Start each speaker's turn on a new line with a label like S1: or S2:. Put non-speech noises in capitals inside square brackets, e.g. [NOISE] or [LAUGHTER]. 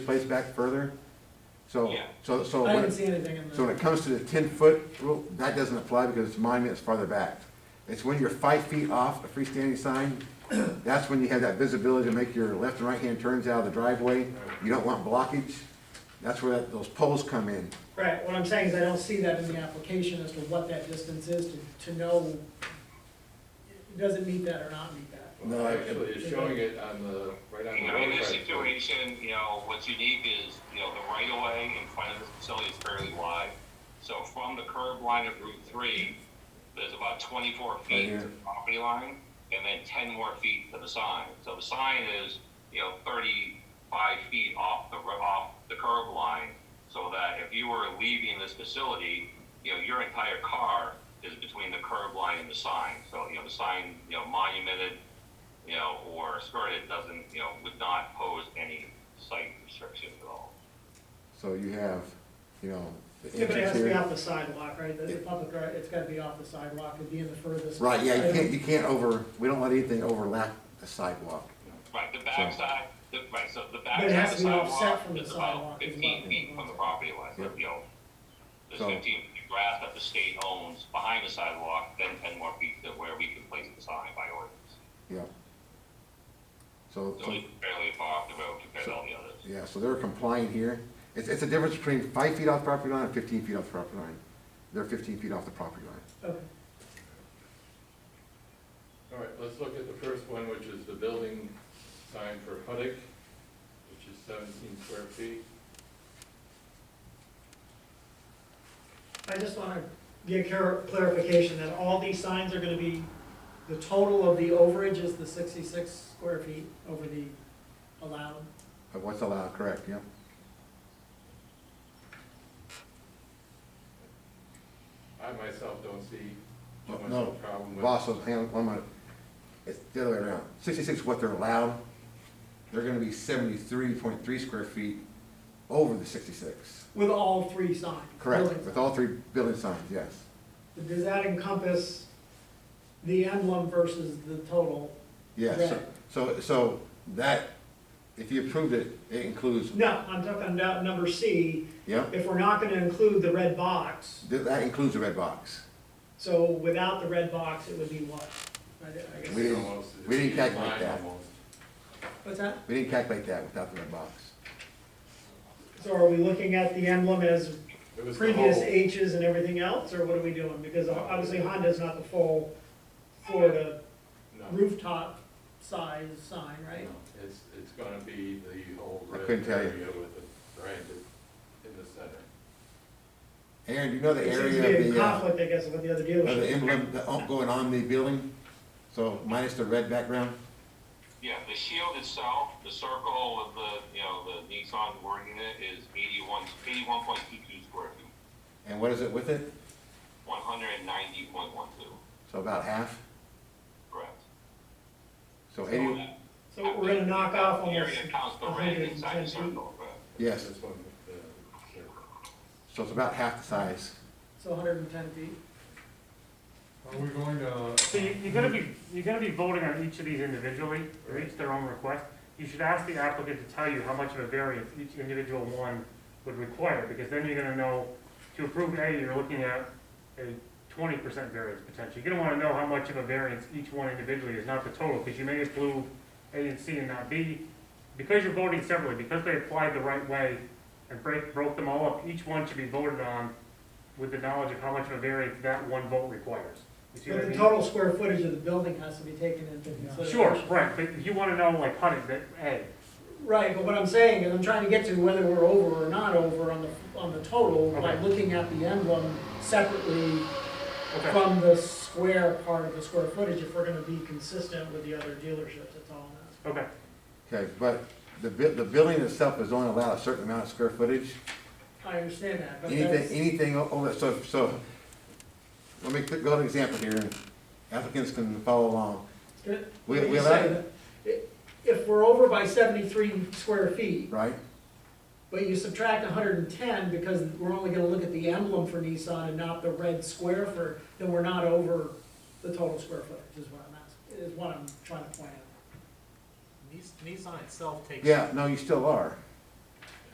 S1: place back further. So,
S2: Yeah.
S1: so, so,
S3: I
S1: when
S3: didn't
S1: it-
S3: see anything in
S1: so when
S3: the,
S1: it comes to the ten foot rule, that doesn't apply because it's monument is farther back. It's when you're five feet off a freestanding sign, [CLEARS THROAT] that's when you have that visibility to make your left and right hand turns out of the driveway. You don't want blockage. That's where that- those poles come in.
S3: right, what I'm saying is I don't see that in the application as to what that distance is to, to know, does it meet that or not meet that?
S1: No,
S4: Well,
S1: I-
S4: actually, it's showing it on the, right on
S2: You
S4: the
S2: know, in
S4: road
S2: this
S4: side.
S2: situation, you know, what's unique is, you know, the right of way in front of this facility is fairly wide. So from the curb line of Route three, there's about twenty-four feet
S1: here.
S2: to the property line, and then ten more feet to the sign. So the sign is, you know, thirty-five feet off the, ro- off the curb line, so that if you were leaving this facility, you know, your entire car is between the curb line and the sign. So, you know, the sign, you know, monumented, you know, or skirted doesn't, you know, would not pose any site restrictions at all.
S1: So you have, you know, the
S3: Yeah, but it has
S1: entrance
S3: to be
S1: here.
S3: off the sidewalk, right, the the public, right, it's gotta be off the sidewalk, it'd be in the furthest.
S1: Right, yeah, you
S3: item.
S1: can't, you can't over, we don't let anything overlap the sidewalk.
S2: Right, the backside, the, right, so the
S3: But it
S2: backside
S3: has
S2: of the
S3: to be offset
S2: sidewalk
S3: from the
S2: is
S3: sidewalk
S2: about
S3: as
S2: fifteen
S3: well.
S2: feet from the property line,
S1: Yeah.
S2: you know. There's
S1: So-
S2: fifteen feet of grass that the state owns behind the sidewalk, then ten more feet to where we can place the sign by ordinance.
S1: Yeah. So,
S2: So
S1: so
S2: it's fairly far off the road compared to all the others.
S1: Yeah, so they're complying here. It's, it's a difference between five feet off property line and fifteen feet off the property line. They're fifteen feet off the property line.
S3: Okay.
S4: All right, let's look at the first one, which is the building sign for Huddick, which is seventeen square feet.
S3: I just wanna get clar- clarification that all these signs are gonna be, the total of the overage is the sixty-six square feet over the allowed.
S1: Of what's allowed, correct, yeah?
S4: I myself don't see
S1: No,
S4: too much
S1: no.
S4: of a problem with.
S1: Boss, hang on, one minute. It's the other way around. Sixty-six is what they're allowed. They're gonna be seventy-three point three square feet over the sixty-six.
S3: With all three signs.
S1: Correct,
S3: building
S1: with all three building signs, yes.
S3: signs. Does that encompass the emblem versus the total?
S1: Yes, so-
S3: Right.
S1: so, so that, if you approved it, it includes,
S3: No, I'm talking about number C,
S1: yeah?
S3: if we're not gonna include the red box,
S1: That that includes the red box.
S3: so without the red box, it would be what? I- I guess-
S1: We didn't-
S4: Almost, it's
S1: we didn't
S4: in
S1: calculate
S4: line
S1: that.
S4: almost.
S3: What's that?
S1: We didn't calculate that without the red box.
S3: So are we looking at the emblem as
S4: It was the
S3: previous
S4: whole,
S3: H's and everything else, or what are we doing? Because obviously Honda's not the full Florida
S4: no,
S3: rooftop size sign, right?
S4: no, it's, it's gonna be the whole
S1: I
S4: red
S1: couldn't tell you.
S4: area with the branded in the center.
S1: Aaron, do you know the
S3: It seems to be
S1: area
S3: in
S1: of the, uh,
S3: conflict, I guess, with the other
S1: of the
S3: dealership.
S1: emblem that on- going on the building? So minus the red background?
S2: Yeah, the shield itself, the circle with the, you know, the Nissan wording in it is eighty-one, eighty-one point two-two square feet,
S1: And what is it with it?
S2: one hundred and ninety point one-two,
S1: So about half?
S2: correct?
S1: So
S2: So
S1: eighty,
S2: that-
S3: So we're gonna knock off almost
S2: Area counts the red
S3: 110
S2: inside the
S3: feet.
S2: circle, correct?
S1: yes,
S4: This one with the circle.
S1: so it's about half the size.
S3: So hundred and ten feet.
S5: Are we going to?
S6: So you, you're gonna be, you're gonna be voting on each of these individually, or each their own request. You should ask the applicant to tell you how much of a variance each individual one would require, because then you're gonna know, to approve A, you're looking at a twenty percent variance potential. You're gonna wanna know how much of a variance each one individually is, not the total, because you may approve A and C and not B. Because you're voting separately, because they applied the right way and break, broke them all up, each one should be voted on with the knowledge of how much of a variance that one vote requires. You see what I
S3: But the
S6: mean?
S3: total square footage of the building has to be taken into consideration.
S6: Sure, right, but you wanna know, like, honey, that, hey,
S3: Right, but what I'm saying is I'm trying to get to whether we're over or not over on the, on the total by
S6: Okay.
S3: looking at the emblem separately
S6: okay,
S3: from the square part of the square footage, if we're gonna be consistent with the other dealerships, that's all I'm asking.
S6: okay,
S1: Okay, but the bu, the building itself is only allowed a certain amount of square footage.
S3: I understand that, but that's,
S1: Anything, anything o- over, so, so, let me go to an example here. Applicants can follow along.
S3: Good.
S1: We-
S3: Let me
S1: we
S3: just
S1: allow-
S3: say that i- If we're over by seventy-three square feet,
S1: Right?
S3: but you subtract hundred and ten, because we're only gonna look at the emblem for Nissan and not the red square for, then we're not over the total square footage, is what I'm asking, is what I'm trying to point out.
S7: Nis- Nissan itself takes,
S1: Yeah, no, you still are.